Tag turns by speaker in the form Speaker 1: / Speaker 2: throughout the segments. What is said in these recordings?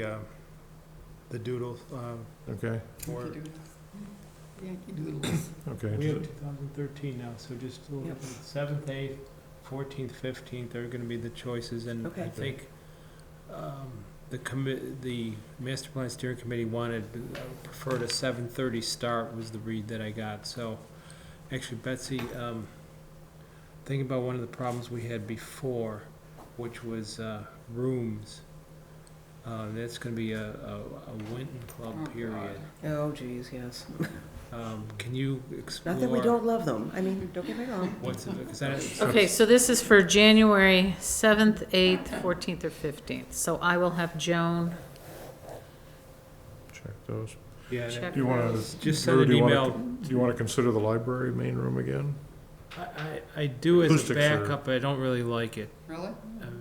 Speaker 1: the, uh, the doodle, um,
Speaker 2: Okay,
Speaker 1: for,
Speaker 3: Yankee Doodles.
Speaker 2: okay.
Speaker 4: We have 2013 now, so just a little
Speaker 3: Yep.
Speaker 4: bit. seventh, eighth, 14th, 15th are going to be the choices. And
Speaker 3: Okay.
Speaker 4: I think um, the commi, the master plan steering committee wanted, uh, preferred a 7:30 start was the read that I got. So actually Betsy, um, thinking about one of the problems we had before, which was uh, rooms. Uh, That's going to be a a- a Winton
Speaker 3: Oh,
Speaker 4: Club
Speaker 3: God.
Speaker 4: period.
Speaker 5: Oh, geez, yes.
Speaker 4: Um, Can you explore?
Speaker 5: Not that we don't love them. I mean, don't get me wrong.
Speaker 4: What's, because that.
Speaker 6: Okay, so this is for January 7th, 8th, 14th, or 15th. So I will have Joan
Speaker 2: Check those.
Speaker 4: Yeah, that-
Speaker 6: check
Speaker 2: Do you wanna-
Speaker 6: those.
Speaker 4: Just
Speaker 2: Drew,
Speaker 4: send an
Speaker 2: do you wanna
Speaker 4: email.
Speaker 2: Do you want to consider the library main room again?
Speaker 4: I, I I do as a
Speaker 2: Acoustics are-
Speaker 4: backup, but I don't really like it.
Speaker 3: Really?
Speaker 4: Um,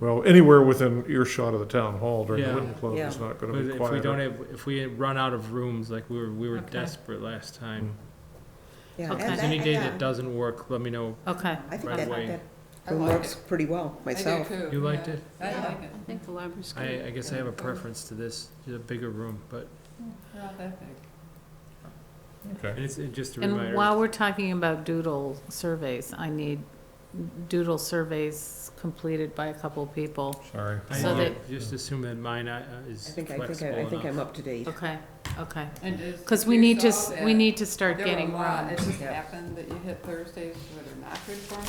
Speaker 2: Well, anywhere within earshot of the town hall during the
Speaker 4: Yeah.
Speaker 2: Winton Club is
Speaker 5: Yeah.
Speaker 2: not
Speaker 4: But
Speaker 2: going to be
Speaker 4: if we don't
Speaker 2: quiet.
Speaker 4: have, if we run out of rooms, like we were, we were
Speaker 6: Okay.
Speaker 4: desperate last
Speaker 2: Mm.
Speaker 4: time.
Speaker 5: Yeah,
Speaker 6: Okay.
Speaker 4: If
Speaker 5: and
Speaker 4: there's
Speaker 5: that-
Speaker 4: any day
Speaker 5: yeah.
Speaker 4: that doesn't work, let me know.
Speaker 6: Okay.
Speaker 5: I think
Speaker 4: right
Speaker 5: that,
Speaker 4: away.
Speaker 5: that
Speaker 3: I
Speaker 5: room
Speaker 3: like
Speaker 5: works pretty well, myself.
Speaker 3: I do too.
Speaker 4: You liked
Speaker 3: yeah.
Speaker 4: it?
Speaker 3: I like it.
Speaker 6: I think the library's
Speaker 4: I, I guess I have a preference to this, to the bigger room, but
Speaker 3: Not that big.
Speaker 4: and it's it- just a
Speaker 6: And while
Speaker 4: reminder.
Speaker 6: we're talking about doodle surveys, I need doodle surveys completed by a couple people.
Speaker 2: Sorry.
Speaker 4: I
Speaker 6: so
Speaker 4: do
Speaker 6: that-
Speaker 4: Just assume that mine uh,
Speaker 5: I
Speaker 4: is
Speaker 5: think, I think,
Speaker 4: flexible
Speaker 5: I- I think
Speaker 4: enough.
Speaker 5: I'm up to date.
Speaker 6: Okay, okay.
Speaker 3: And is-
Speaker 6: Because we
Speaker 3: you
Speaker 6: need to,
Speaker 3: saw
Speaker 6: s- we
Speaker 3: that
Speaker 6: need to start
Speaker 3: there were a
Speaker 6: getting
Speaker 3: lot.
Speaker 6: more.
Speaker 3: It just
Speaker 5: Yeah.
Speaker 3: happened that you hit Thursdays that are not good for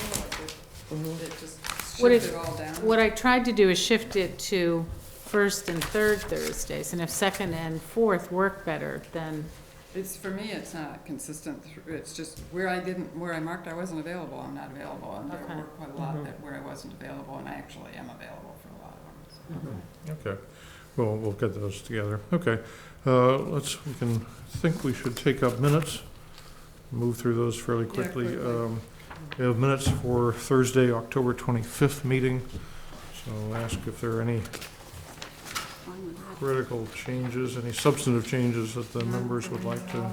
Speaker 3: me, like it,
Speaker 5: Mhm.
Speaker 3: it just
Speaker 6: What if-
Speaker 3: shifted all down.
Speaker 6: What I tried to do is shift it to first and third Thursdays, and if second and fourth work better, then,
Speaker 3: It's, for me, it's not consistent, thr- it's just where I didn't, where I marked I wasn't available, I'm not available, and there
Speaker 6: Okay.
Speaker 3: were quite a
Speaker 2: Mm-hmm.
Speaker 3: lot that where I wasn't available, and I actually am available for a lot of them, so.
Speaker 2: Okay, well, we'll get those together. Okay, uh, let's, we can, I think we should take up minutes, move through those fairly
Speaker 3: Yeah,
Speaker 2: quickly.
Speaker 3: quickly.
Speaker 2: Um, We have minutes for Thursday, October 25th meeting, so I'll ask if there are any critical changes, any substantive changes that the members would like to.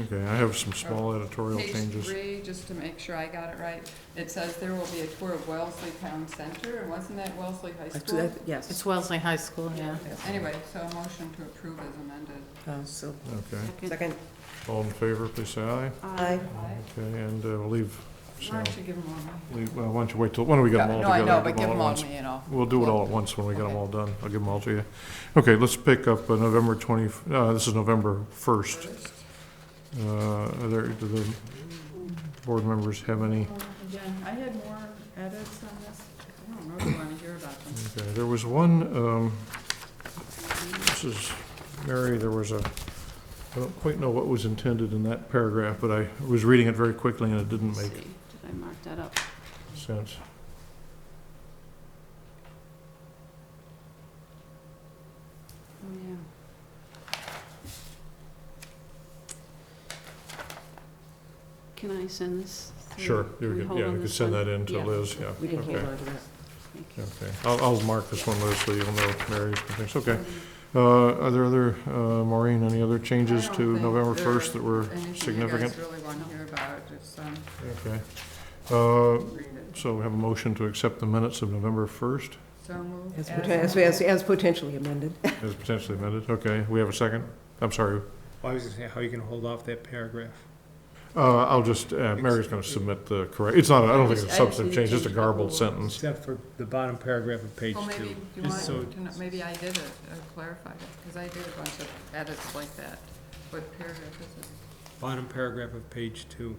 Speaker 2: Okay, I have some small
Speaker 3: Oh,
Speaker 2: editorial
Speaker 3: Page
Speaker 2: changes.
Speaker 3: three, just to make sure I got it right, it says there will be a tour of Wellesley Town Center, and wasn't that Wellesley High
Speaker 5: That's-
Speaker 3: School?
Speaker 5: that- uh, Yes.
Speaker 6: it's Wellesley High School, yeah.
Speaker 3: Anyway, so a motion to approve is amended.
Speaker 5: Uh, So,
Speaker 2: Okay,
Speaker 5: second,
Speaker 2: all in favor, please say aye.
Speaker 5: aye.
Speaker 2: Mm-hmm. Okay, and uh, we'll leave,
Speaker 3: Why
Speaker 2: Sal,
Speaker 3: don't you give them all to me?
Speaker 2: leave- well, why don't you wait till, why don't we get them all
Speaker 3: Uh, No,
Speaker 2: together?
Speaker 3: I know,
Speaker 2: give
Speaker 3: but
Speaker 2: them
Speaker 3: give
Speaker 2: all
Speaker 3: them
Speaker 2: at
Speaker 3: all
Speaker 2: once?
Speaker 3: to me, you know.
Speaker 2: We'll do it all at once when we get them
Speaker 3: Okay.
Speaker 2: all done. I'll give them all to you. Okay, let's pick up uh, November 20, uh, this is November 1st.
Speaker 3: First.
Speaker 2: Uh, are there, do the board members have any?
Speaker 3: Again, I had more edits on this, I don't know if you wanna hear about them.
Speaker 2: Okay, there was one, um, this is, Mary, there was a, I don't quite know what was intended in that paragraph, but I was reading it very quickly and it didn't make
Speaker 6: I mark that up?
Speaker 2: sense.
Speaker 6: Can I send this?
Speaker 2: Sure, you could, yeah, you could send that in to Liz, yeah.
Speaker 5: We can
Speaker 2: Okay.
Speaker 5: hang on to that.
Speaker 2: Okay, I'll, I'll mark this one, Liz, so you'll know Mary's and things, okay.
Speaker 3: Um,
Speaker 2: Uh, are there other, uh, Maureen, any other changes
Speaker 3: I don't
Speaker 2: to
Speaker 3: think
Speaker 2: November
Speaker 3: there
Speaker 2: first that were
Speaker 3: Anything you
Speaker 2: significant?
Speaker 3: guys really wanna hear about, just, um,
Speaker 2: Okay. Uh,
Speaker 3: read it.
Speaker 2: so we have a motion to accept the minutes of November first
Speaker 3: So moved.
Speaker 5: As
Speaker 3: As
Speaker 5: poten- As, as, as potentially amended.
Speaker 2: as potentially amended, okay, we have a second? I'm sorry,
Speaker 4: I was gonna say, how are you gonna hold off that paragraph?
Speaker 2: uh, I'll just, uh, Mary's gonna submit the correct, it's not, I don't think it's a substantive change, just a garbled sentence.
Speaker 4: Except for the bottom paragraph of page
Speaker 3: Well, maybe,
Speaker 4: two.
Speaker 3: you
Speaker 4: just
Speaker 3: want,
Speaker 4: so-
Speaker 3: to know- maybe I did it, uh, clarified it, because I did a bunch of edits like that. What paragraph is it?
Speaker 4: Bottom paragraph of page two.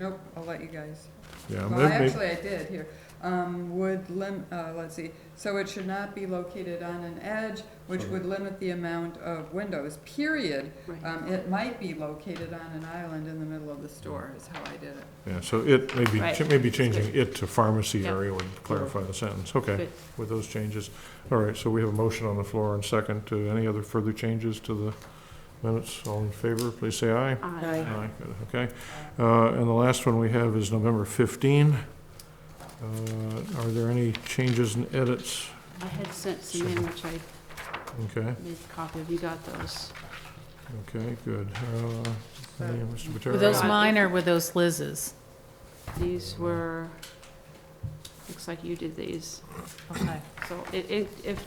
Speaker 3: Nope, I'll let you guys.
Speaker 2: Yeah,
Speaker 3: Well, I
Speaker 2: may- may-
Speaker 3: actually, I did here. Um, would lim, uh, let's see, so it should not be located on an edge, which
Speaker 2: Sorry.
Speaker 3: would limit the amount of windows, period.
Speaker 6: Right.
Speaker 3: Um, it might be located on an island in the middle of the store, is how I did it.
Speaker 2: yeah, so it, maybe,
Speaker 6: Right.
Speaker 2: maybe changing it to pharmacy
Speaker 6: Yeah.
Speaker 2: area would clarify the sentence, okay.
Speaker 6: Good.
Speaker 2: with those changes. All right, so we have a motion on the floor and second. to Any other further changes to the minutes? All in favor, please say aye.
Speaker 5: Aye.
Speaker 2: Good, Okay. Uh, And the last one we have is November 15. Uh, Are there any changes and edits?
Speaker 6: I had sent
Speaker 2: some in,
Speaker 6: which I
Speaker 2: Okay,
Speaker 6: made a copy of, you got those.
Speaker 2: okay, good. Uh, any, Mr.
Speaker 6: Were those
Speaker 2: Patera?
Speaker 6: mine or were those Liz's?
Speaker 2: These were
Speaker 6: Looks like you did these.
Speaker 7: Okay.
Speaker 6: So it, it, if